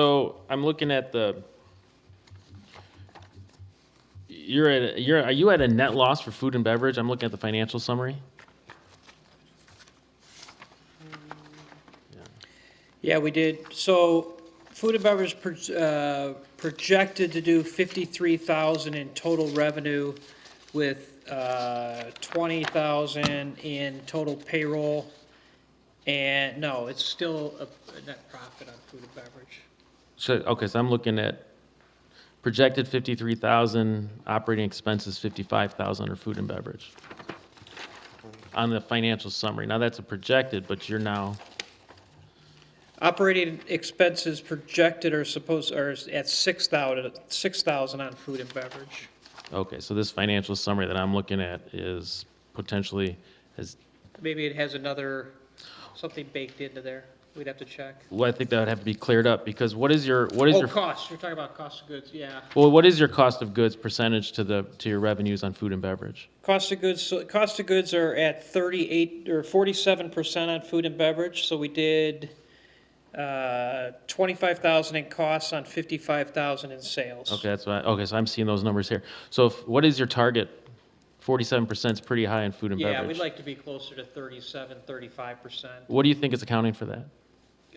So I'm looking at the. You're at a- you're are you at a net loss for food and beverage? I'm looking at the financial summary. Yeah, we did. So food and beverage proj- uh, projected to do 53,000 in total revenue with uh, 20,000 in total payroll. And no, it's still a a net profit on food and beverage. So okay, so I'm looking at projected fifty-three thousand, operating expenses fifty-five thousand under food and beverage. On the financial summary. Now that's a projected, but you're now Operating expenses projected are supposed, are at 6,000, 6,000 on food and beverage. okay, so this financial summary that I'm looking at is potentially is Maybe it has another, something baked into there. We'd have to check. well, I think that would have to be cleared up because what is your what is Oh, your cost, you're talking about cost of goods, yeah. Well, what is your cost of goods percentage to the, to your revenues on food and beverage? Cost of goods, so cost of goods are at thirty-eight, or forty-seven percent on food and beverage, so we did, uh, twenty-five thousand in costs on fifty-five thousand in sales. Okay, that's why, okay, so I'm seeing those numbers here. So if, what is your target? Forty-seven percent is pretty high in food and Yeah, we'd beverage. like to be closer to thirty-seven, thirty-five percent. What do you think is accounting for that?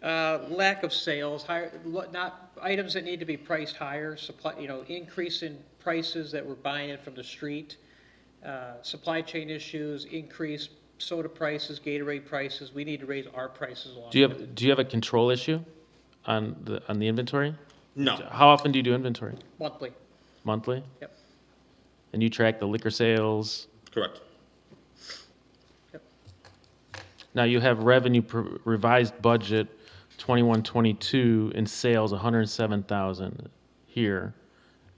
Uh, lack of sales, higher, lo- not, items that need to be priced higher, supply, you know, increase in prices that we're buying in from the street, uh, supply chain issues, increased soda prices, Gatorade prices, we need to raise our prices along. Do you with have, do you have a control issue on the, on the inventory? No. How often do you do inventory? it. Monthly. Monthly? Yep. And you track the liquor sales? Correct. Now you have revenue per- revised budget twenty-one, twenty-two in sales, hundred and seven thousand here,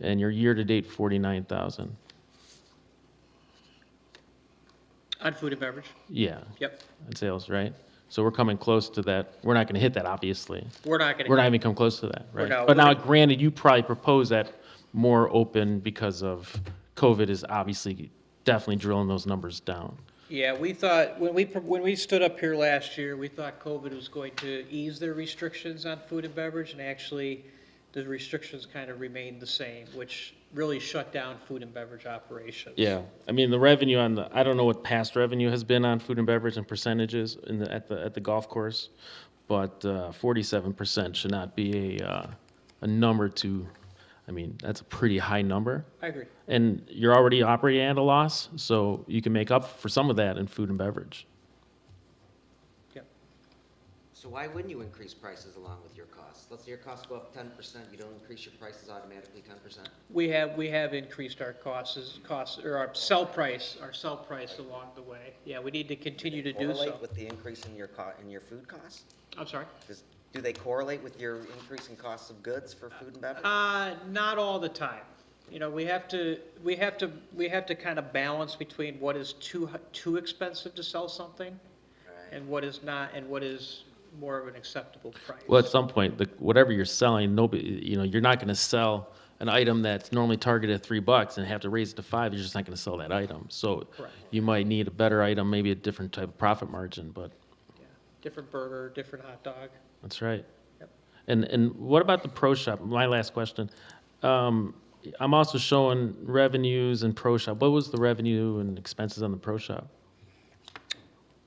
and your year-to-date forty-nine thousand. On food and beverage, Yeah, yep. and sales, right? So we're coming close to that. We're not going to hit that, obviously. We're not gonna. We're not even come close to that, We're right? not- But we're now, not- granted, you probably propose that more open because of COVID is obviously definitely drilling those numbers down. Yeah, we thought, when we, when we stood up here last year, we thought COVID was going to ease their restrictions on food and beverage, and actually, the restrictions kind of remained the same, which really shut down food and beverage operations. Yeah, I mean, the revenue on the, I don't know what past revenue has been on food and beverage and percentages in the, at the, at the golf course, but uh, forty-seven percent should not be a, uh, a number to, I mean, that's a pretty high number. I agree. And you're already operating at a loss, so you can make up for some of that in food and beverage. So why wouldn't you increase prices along with your costs? Let's say your costs go up ten percent, you don't increase your prices automatically ten percent? We have, we have increased our costs, as- costs, or our sell price, our sell price along the way. Yeah, we need to continue to do so. Correlate with the increase in your co, in your food costs? I'm sorry. Does, do they correlate with your increase in costs of goods for food and beverage? Uh, not all the time. You know, we have to, we have to, we have to kind of balance between what is too, h- too expensive to sell something Right. and what is not, and what is more of an acceptable price. Well, at some point, the, whatever you're selling, nobody, you know, you're not gonna sell an item that's normally targeted at three bucks and have to raise it to five, you're just not gonna sell that item. So Correct. you might need a better item, maybe a different type of profit margin, but Yeah. Different burger, different hot dog. that's right. Yep. And, and what about the pro shop? My last question. Um, I'm also showing revenues and pro shop. What was the revenue and expenses on the pro shop?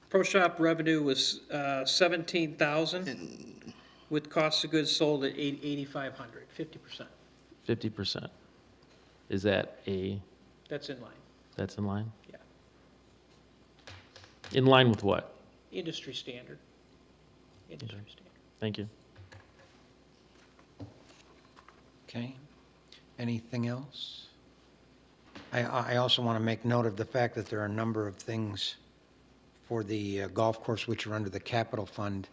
Pro shop revenue was, uh, seventeen thousand with cost of goods sold at eight, eighty-five hundred, fifty percent. Fifty percent. Is that a, That's in line. that's in line? Yeah. In line with what? Industry standard. Industry standard. Thank you. Okay. Anything else? I, I also want to make note of the fact that there are a number of things for the uh, golf course which are under the capital fund.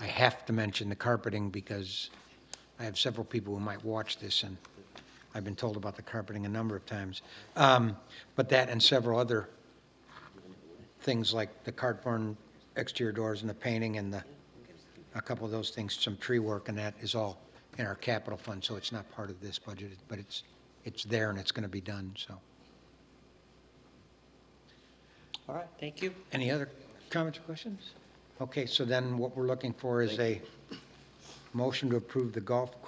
I have to mention the carpeting because I have several people who might watch this and I've been told about the carpeting a number of times. Um, But that and several other things like the cardboard exterior doors and the painting and the, a couple of those things, some tree work and that is all in our capital fund, so it's not part of this budget, but it's, it's there and it's going to be done, so. All right, thank you. Any other comments or questions? Okay, so then what we're looking for is a Motion to approve the golf